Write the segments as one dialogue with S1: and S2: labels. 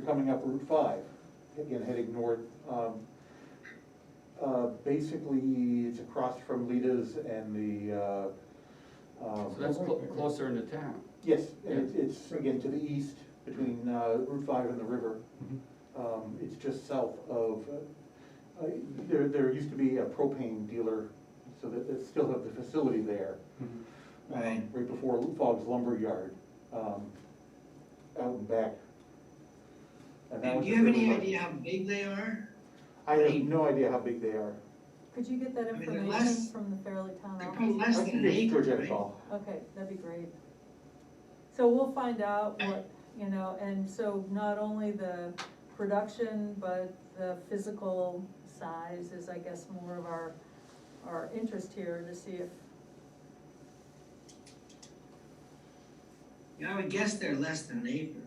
S1: coming up Route five, again, heading north. Um, uh, Basically, it's across from Lita's and the, uh. uh,
S2: So that's clo- closer into town.
S1: Yes, and it's, it's again to the east between uh, Route five and the river.
S3: Mm-hmm.
S1: Um, It's just south of, uh, uh, there, there used to be a propane dealer, so that, that still have the facility there. um,
S3: Mm-hmm. Right.
S1: Right before Fogg's Lumber Yard, um, out and back. And that
S3: And
S1: was a
S3: do you have
S1: really
S3: any
S1: large-
S3: idea how big they are?
S1: I have no idea how big they are.
S4: Could you get that
S3: I mean, they're
S4: information
S3: less-
S4: from the Fairleigh Town
S3: They're probably
S4: office?
S1: I
S3: less than
S1: think
S3: an
S1: it's
S3: acre,
S1: Georgette
S3: right?
S1: Ball.
S4: Okay, that'd be great. So we'll find out what, you know, and so not only the production, but the physical size is, I guess, more of our, our interest here to see if,
S3: Yeah, I would guess they're less than an acre.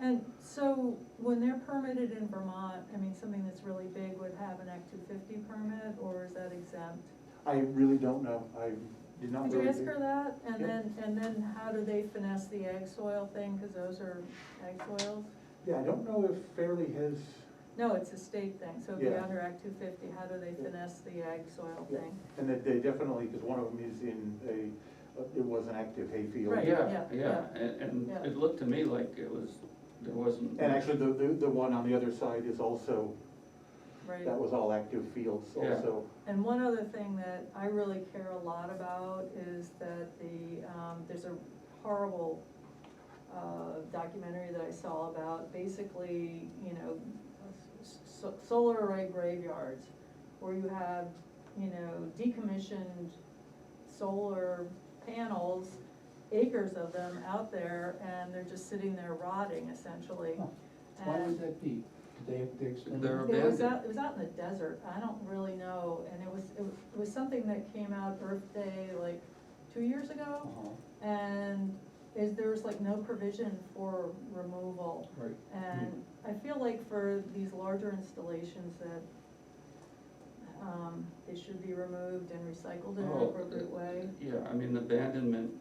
S4: and so when they're permitted in Vermont, I mean, something that's really big would have an Act two fifty permit, or is that exempt?
S1: I really don't know, I did not
S4: Could
S1: really.
S4: you ask
S1: dig-
S4: her that? And
S1: Yeah.
S4: then, and then how do they finesse the ag soil thing, because those are ag soils?
S1: Yeah, I don't know if Fairleigh has
S4: No, it's a state thing, so if you're
S1: Yeah.
S4: under Act two fifty, how do they
S1: Yeah.
S4: finesse the ag soil
S1: Yeah.
S4: thing?
S1: And that they definitely, because one of them is in a, it was an active hayfield.
S4: Right.
S2: Yeah,
S4: yeah,
S2: yeah, and, and
S4: yeah.
S2: it looked to me like it was, there wasn't.
S1: And actually, the, the, the one on the other side is also,
S4: Right,
S1: that was all active fields
S2: Yeah.
S1: also.
S4: and one other thing that I really care a lot about is that the, um, there's a horrible, uh, documentary that I saw about basically, you know, s- so- solar array graveyards, where you have, you know, decommissioned solar panels, acres of them out there, and they're just sitting there rotting essentially.
S5: Why
S4: And-
S5: would that be? They, they extend.
S2: They're-
S4: It was
S2: abandoned.
S4: out, it was out in the desert, I don't really know, and it was, it was- it was something that came out Earth Day like two years ago,
S5: Uh-huh,
S4: and is, there was like no provision for removal.
S5: Right.
S4: And I feel like for these larger installations that, um, they should be removed and recycled in an
S2: Oh,
S4: appropriate way.
S2: Yeah, I mean, abandonment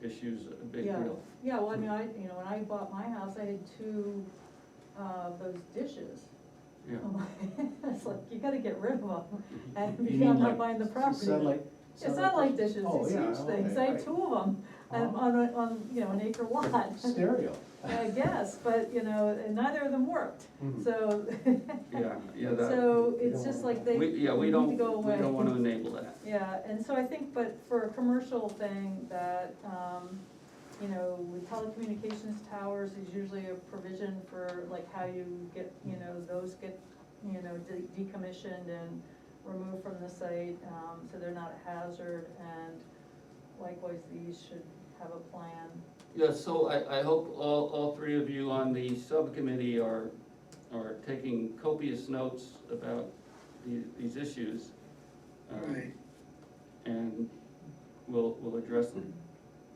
S2: issue's a big
S4: Yeah.
S2: deal.
S4: Yeah, well, I mean, I, you know, when I bought my house, I had two, uh, those dishes.
S2: Yeah,
S4: I'm like- It's like, you gotta get rid of them, and
S5: You
S4: if I'm
S5: mean
S4: not
S5: like
S4: buying the
S5: s-
S4: property.
S5: satellite-
S4: It's not like dishes,
S5: Oh,
S4: it's
S5: yeah,
S4: huge things, I
S5: okay,
S4: had
S5: right.
S4: two of them, and
S5: Uh-huh.
S4: on, a- on, you know, an acre lot.
S5: Stereo.
S4: I guess, but, you know, and neither of them worked,
S5: Hmm.
S4: so.
S2: yeah, yeah, that,
S4: So
S5: You
S4: it's
S5: don't
S4: just
S5: want
S4: like
S5: that.
S4: they
S2: we, yeah, we
S4: need
S2: don't,
S4: to
S2: we
S4: go away.
S2: don't wanna enable that.
S4: Yeah, and so I think, but for a commercial thing that, um, you know, with telecommunications towers is usually a provision for like how you get, you know, those get, you know, de- decommissioned and removed from the site, um, so they're not a hazard, and likewise, these should have a plan.
S2: Yeah, so I, I hope all, all three of you on the subcommittee are, are taking copious notes about the, these issues.
S3: All
S2: um,
S3: right.
S2: And we'll, we'll address them.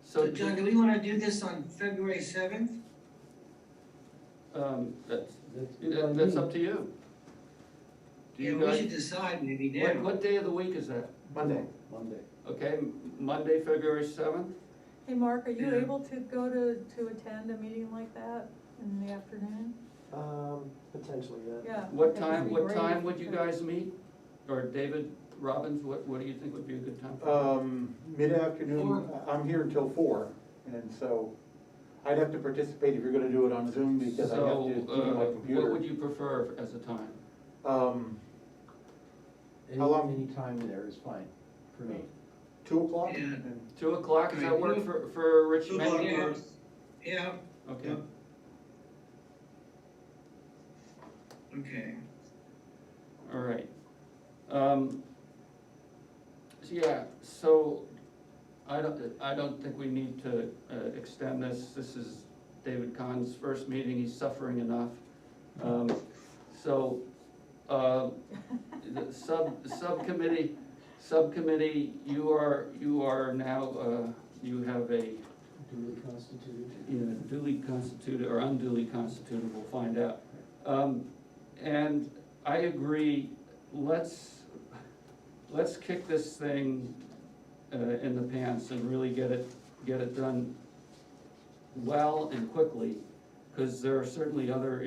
S3: So
S2: So,
S3: John, do we wanna do this on February seventh?
S2: um, that's,
S5: That's good by
S2: that- that's
S5: me.
S2: up to you. Do
S3: Yeah,
S2: you
S3: we
S2: guys-
S3: should decide maybe
S2: What,
S3: now.
S2: what day of the week is that?
S1: Monday,
S5: Monday.
S2: Okay, M- Monday, February seventh?
S4: Hey, Mark, are you
S3: Yeah.
S4: able to go to, to attend a meeting like that in the afternoon?
S6: Um, potentially, yeah.
S4: Yeah.
S2: What
S4: that would
S2: time,
S4: be
S2: what
S4: great if
S2: time
S4: you
S2: would you
S4: could.
S2: guys meet? Or David Robbins, what, what do you think would be a good time?
S1: um, mid-afternoon,
S3: Four.
S1: I'm here until four, and so I'd have to participate if you're gonna do it on Zoom, because I have
S2: So,
S1: to do my
S2: uh, what would
S1: computer.
S2: you prefer as a time?
S1: Um,
S5: Any,
S1: How long-
S5: any time there is fine for me.
S1: two o'clock,
S3: Yeah.
S1: and
S2: Two o'clock, does that work for, for Rich
S3: Two o'clock
S2: Mendinger?
S3: works. Yeah,
S2: Okay,
S3: okay.
S2: all right. Um, so yeah, so I don't, I don't think we need to, uh, extend this. This is David Kahn's first meeting, he's suffering enough. Um, so, uh, the sub, the subcommittee, subcommittee, you are, you are now, uh, you have a,
S5: Duly constituted.
S2: you know, duly constituted or unduly constituted, we'll find out. Um, and I agree, let's, let's kick this thing, uh, in the pants and really get it, get it done well and quickly, cause there are certainly other